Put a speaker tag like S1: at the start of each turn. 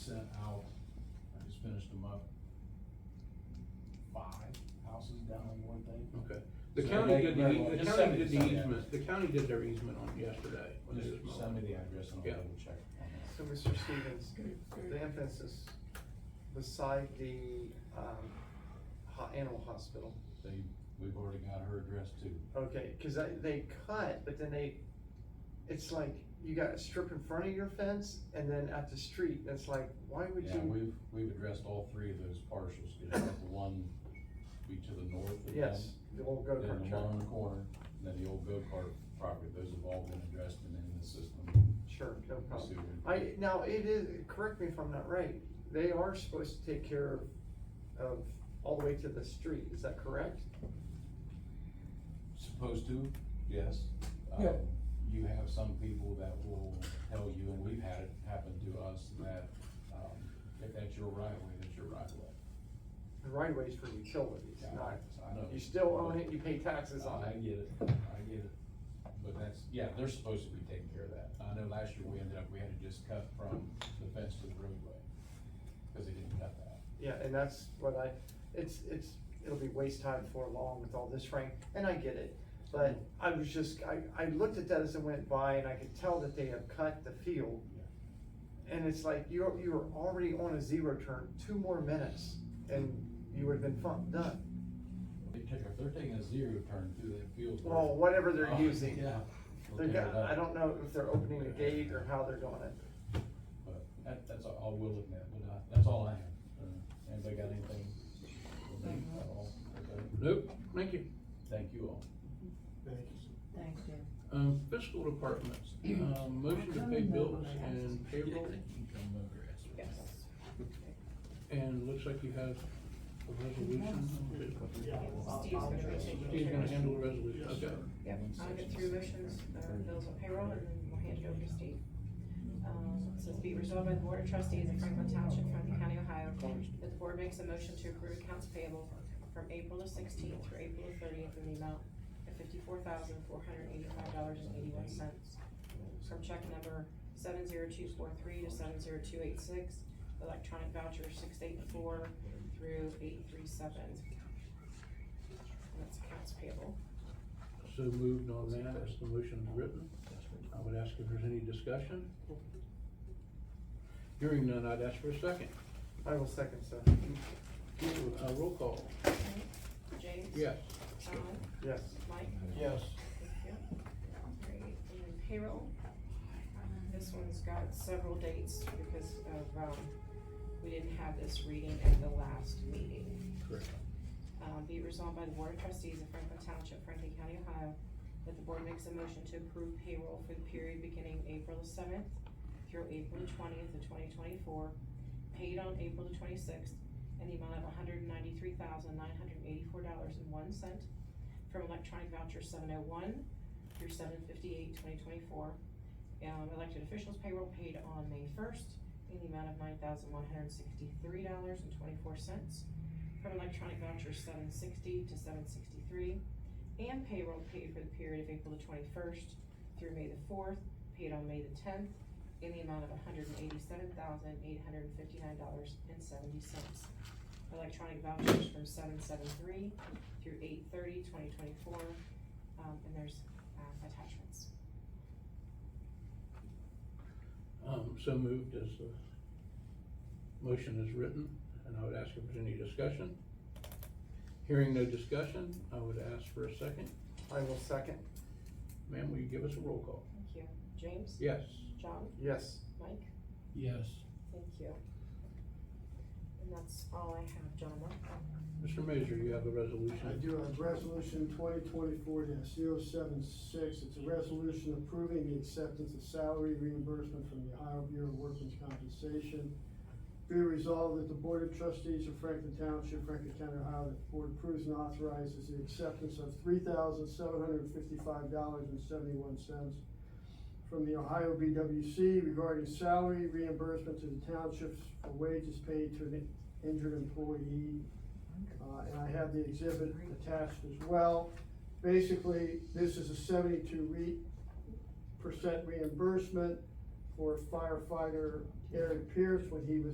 S1: sent out, I just finished them up. Five houses down in one thing.
S2: Okay, the
S1: So
S2: county
S1: they-
S2: did the,
S1: they're
S2: ea-
S1: like,
S2: the
S1: just
S2: county
S1: send me
S2: did the
S1: some, yeah.
S2: easement, the county did their easement on yesterday. when they was
S1: Just send me
S2: mowing.
S1: the address and I'll
S2: Yeah.
S1: double check. on that.
S3: So, Mr. Stevens, the emphasis beside the, um, ho- animal hospital,
S1: They, we've already got her address too.
S3: okay, cause I, they cut, but then they, it's like, you got a strip in front of your fence and then at the street, it's like, why would
S1: Yeah,
S3: you?
S1: we've, we've addressed all three of those parcels, 'cause you have the one be to the north of them.
S3: Yes, the old
S1: Then the
S3: go-kart
S1: one
S3: track,
S1: on the corner, and then the old go-kart property, those have all been addressed and in the system.
S3: sure, no problem.
S1: So we-
S3: I, now, it is, correct me if I'm not right, they are supposed to take care of, of all the way to the street, is that correct?
S1: Supposed to, yes. Um,
S4: Yeah.
S1: You have some people that will tell you, and we've had it happen to us, that, um, if that's your right of way, that's your right of way.
S3: The right of ways for utilities,
S1: Yeah,
S3: not,
S1: I- I know.
S3: you still own it, you pay taxes on
S1: I
S3: it.
S1: get it, I get it, but that's, yeah, they're supposed to be taking care of that. I know last year we ended up, we had to just cut from the fence to the roadway, cause they didn't cut that.
S3: Yeah, and that's what I, it's, it's, it'll be waste time for long with all this, Frank, and I get it. But I was just, I, I looked at that as it went by and I could tell that they have cut the field. And it's like, you're, you were already on a zero turn, two more minutes, and you would have been fun, done.
S1: They take, if they're taking a zero turn through that field.
S3: Well, whatever they're
S1: Oh,
S3: using.
S1: Yeah.
S3: They're,
S1: Okay,
S3: go- I
S1: that-
S3: don't know if they're opening a gate or how they're doing it.
S1: But that, that's all, all we'll admit, but uh, that's all I have. Uh, Anybody got anything? for me at all? Okay.
S2: Nope, thank you.
S1: Thank you all.
S4: Thank you.
S2: Um, fiscal departments, um, motion to pay bills and payroll,
S4: Yes.
S2: and looks like you have a resolution.
S4: Steve's gonna
S2: He's gonna handle the resolution, okay.
S5: Yep, I'll get through motions, uh, bills and payroll, and then we'll hand it over to Steve. Um, it says be resolved by the Board of Trustees of Franklin Township, Franklin County, Ohio, that the board makes a motion to approve accounts payable from April the sixteenth through April the thirtieth in the amount of fifty-four thousand, four hundred eighty-five dollars and eighty-one cents. From check number seven zero two four three to seven zero two eight six, electronic voucher six eight four through eight three seven. That's accounts payable.
S2: So moved on that, as the motion is written. I would ask if there's any discussion. Hearing none, I'd ask for a second.
S3: I will second, so,
S2: Uh, roll call,
S5: James?
S2: yes.
S5: John?
S3: yes.
S5: Mike?
S2: Yes.
S5: Thank you. Great, and then payroll. This one's got several dates because of, um, we didn't have this reading at the last meeting.
S2: Correct.
S5: Um, be it resolved by the Board of Trustees of Franklin Township, Franklin County, Ohio, that the board makes a motion to approve payroll for the period beginning April the seventh through April the twentieth of twenty twenty-four, paid on April the twenty-sixth, in the amount of hundred and ninety-three thousand, nine hundred and eighty-four dollars and one cent from electronic voucher seven oh one through seven fifty-eight, twenty twenty-four. Um, elected officials payroll paid on May first in the amount of nine thousand, one hundred and sixty-three dollars and twenty-four cents from electronic voucher seven sixty to seven sixty-three, and payroll paid for the period of April the twenty-first through May the fourth, paid on May the tenth, in the amount of hundred and eighty-seven thousand, eight hundred and fifty-nine dollars and seventy cents. Electronic vouchers from seven seven three through eight thirty, twenty twenty-four, um, and there's, uh, attachments.
S2: Um, so moved as the motion is written, and I would ask if there's any discussion. Hearing no discussion, I would ask for a second.
S3: I will second,
S2: Ma'am, will you give us a roll call?
S5: Thank you. James?
S2: Yes.
S5: John?
S3: yes.
S5: Mike?
S2: Yes.
S5: Thank you. And that's all I have, John.
S2: Mr. Major, you have a resolution.
S6: I do have resolution twenty twenty-four 76 It's a resolution approving the acceptance of salary reimbursement from the Ohio Bureau of Workers' Compensation. Be resolved that the Board of Trustees of Franklin Township, Franklin County, Ohio, that the board approves and authorizes the acceptance of three thousand seven hundred and fifty-five dollars and seventy-one cents from the Ohio BWC regarding salary reimbursement to the townships for wages paid to an injured employee uh, and I have the exhibit attached as well. Basically, this is a seventy-two re- percent reimbursement for firefighter Eric Pierce when he was